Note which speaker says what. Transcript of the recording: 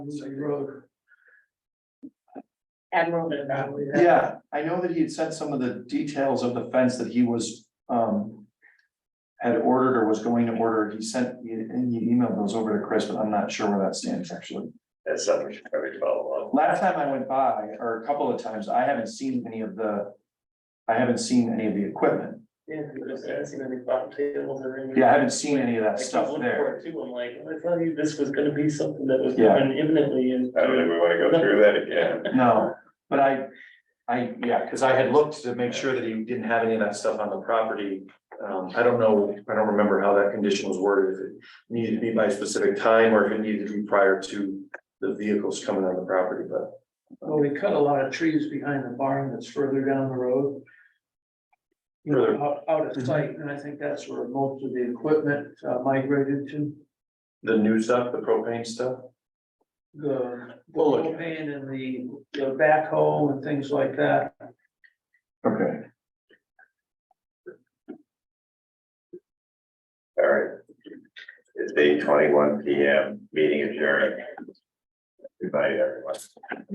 Speaker 1: Say road.
Speaker 2: Admiral,
Speaker 3: Yeah, I know that he had said some of the details of the fence that he was, um. Had ordered or was going to order, he sent, and you emailed those over to Chris, but I'm not sure where that stands actually.
Speaker 4: That's something we should probably follow up.
Speaker 3: Last time I went by, or a couple of times, I haven't seen any of the. I haven't seen any of the equipment,
Speaker 1: Yeah, because I see any bottom tables or anything.
Speaker 3: yeah, I haven't seen any of that
Speaker 1: I keep
Speaker 3: stuff
Speaker 1: looking
Speaker 3: there.
Speaker 1: for it Too, I'm like, I tell you, this was gonna be something that was
Speaker 3: Yeah.
Speaker 1: coming imminently and.
Speaker 4: I don't think we wanna go through that again.
Speaker 3: No, but I, I, yeah, because I had looked to make sure that he didn't have any of that stuff on the property. Um, I don't know, I don't remember how that condition was worded, if it needed to be by a specific time or if it needed to be prior to the vehicles coming on the property, but.
Speaker 1: Well, we cut a lot of trees behind the barn that's further down the road. You
Speaker 3: Further.
Speaker 1: know, out, out of sight, and I think that's where most of the equipment uh, migrated to,
Speaker 3: The new stuff, the propane stuff?
Speaker 1: the
Speaker 3: We'll look.
Speaker 1: propane and the, the backhoe and things like that.
Speaker 3: Okay.
Speaker 4: All right. It's eight twenty-one P M, meeting adjourned. Goodbye, everyone.